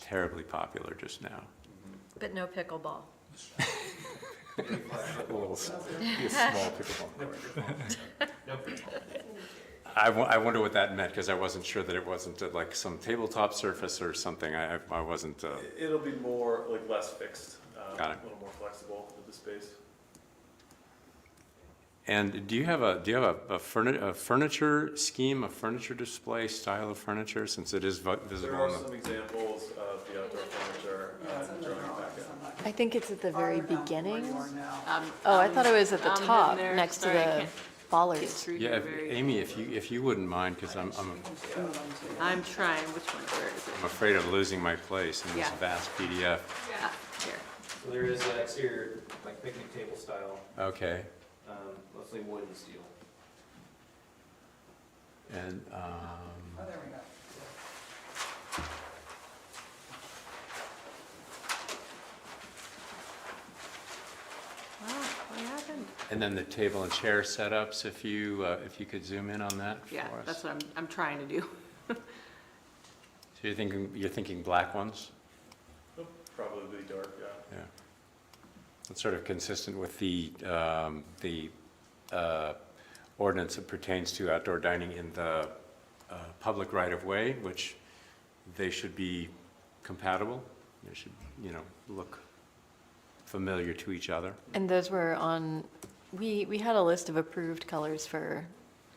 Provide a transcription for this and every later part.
terribly popular just now. But no pickleball. A little, s- be a small pickleball court. I wo- I wonder what that meant, because I wasn't sure that it wasn't uh, like some tabletop surface or something. I, I- I wasn't, uh, It'll be more, like, less fixed, um, Got it. a little more flexible with the space. and do you have a, do you have a- a furni- a furniture scheme, a furniture display, style of furniture, since it is vi- There visible? are on the- some examples of the outdoor furniture uh, drawing packet. I think it's at the very beginning. Um, Oh, I thought it was at the I'm in top, there. next to Sorry, I the can't Get bollards. through Yeah, here if- very. Amy, if you, if you wouldn't mind, because I'm, I'm I'm trying, which one, where is I'm afraid of losing my place in this Yeah. vast PDF. it? Ah, Here. So there is an exterior, like picnic table style, Okay, um, mostly wood and steel. and, um, Oh, there we go. Wow, what happened? and then the table and chair setups, if you, uh, if you could zoom in on that for us. Yeah, that's what I'm, I'm trying to do. So you're thinking, you're thinking black ones? Nope, Probably dark, yeah. Yeah. That's sort of consistent with the, um, the uh, ordinance that pertains to outdoor dining in the uh, public right-of-way, which they should be compatible. They should, you know, look familiar to each other. And those were on, we, we had a list of approved colors for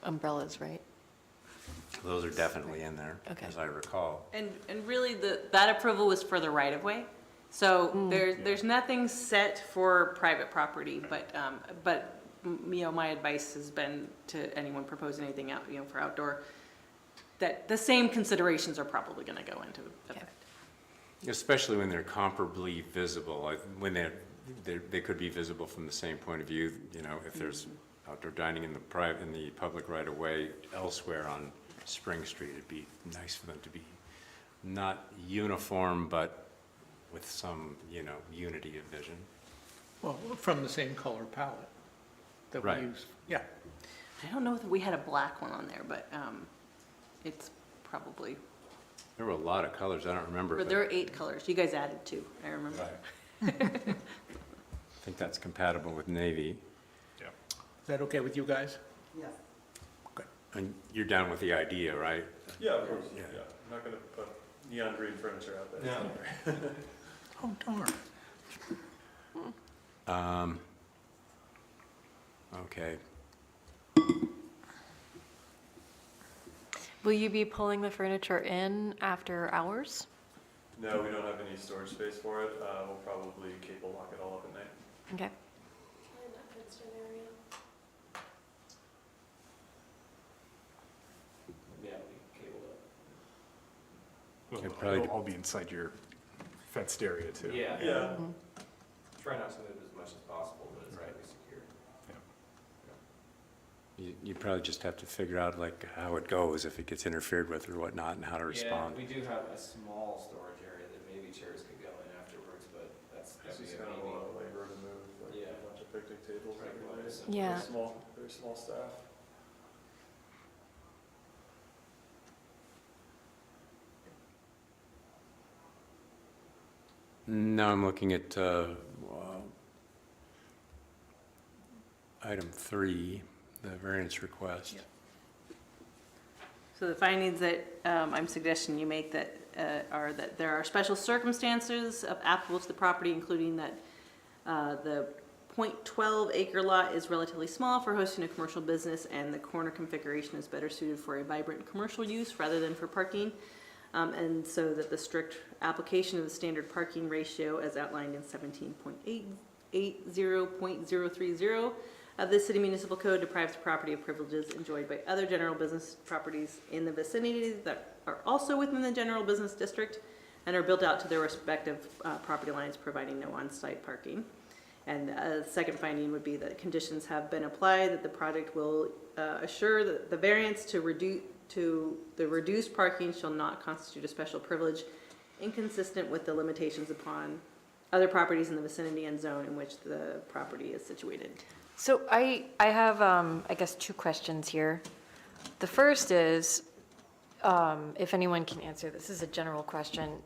umbrellas, right? Those are definitely in there, Okay. as I recall. And, and really, the, that approval was for the right of way. So there, there's nothing set for private property, but, um, but, m- you know, my advice has been to anyone proposing anything out, you know, for outdoor, that the same considerations are probably gonna go into effect. Especially when they're comparably visible, like when they're, they, they could be visible from the same point of view, you know, if there's outdoor dining in the private, in the public right of way elsewhere on Spring Street, it'd be nice for them to be not uniform, but with some, you know, unity of vision. Well, from the same color palette that we Right. use. Yeah, I don't know if we had a black one on there, but, um, it's probably, There were a lot of colors, I don't remember. but but- there were eight colors. You guys added two, I remember. Right. I think that's compatible with navy. is that okay with you guys? Yes. And you're down with the idea, right? Yeah, of course, yeah. Yeah. I'm not gonna put neon green furniture out there. No. Oh darn. Okay. Will you be pulling the furniture in after hours? No, we don't have any storage space for it. Uh, We'll probably cable lock it all up at night. Okay. Yeah, we cabled up. It'll probably It'll all be inside your fenced area too. Yeah, Yeah, try not to move as much as possible, but it's gotta be secure. You, you probably just have to figure out like how it goes, if it gets interfered with or whatnot, and how to respond. Yeah, we do have a small storage area that maybe chairs could go in afterwards, but that's it's definitely just a kind of a lot of maybe. labor to move, like Yeah. a bunch of picnic tables Right, well, every day. it's- Yeah. Very small, very small staff. Now I'm looking at, uh, well, item three, the variance request. So the findings that um, I'm suggesting you make that uh, are that there are special circumstances of applicable to the property, including that uh, the .12 acre lot is relatively small for hosting a commercial business, and the corner configuration is better suited for a vibrant commercial use rather than for parking. Um, And so that the strict application of the standard parking ratio as outlined in 17.880.030 of the city municipal code deprives the property of privileges enjoyed by other general business properties in the vicinity that are also within the general business district and are built out to their respective uh, property lines, providing no on-site parking. And a second finding would be that conditions have been applied, that the project will uh, assure that the variance to reduce, to the reduced parking shall not constitute a special privilege inconsistent with the limitations upon other properties in the vicinity and zone in which the property is situated. So I, I have, um, I guess, two questions here. The first is, um, if anyone can answer, this is a general question.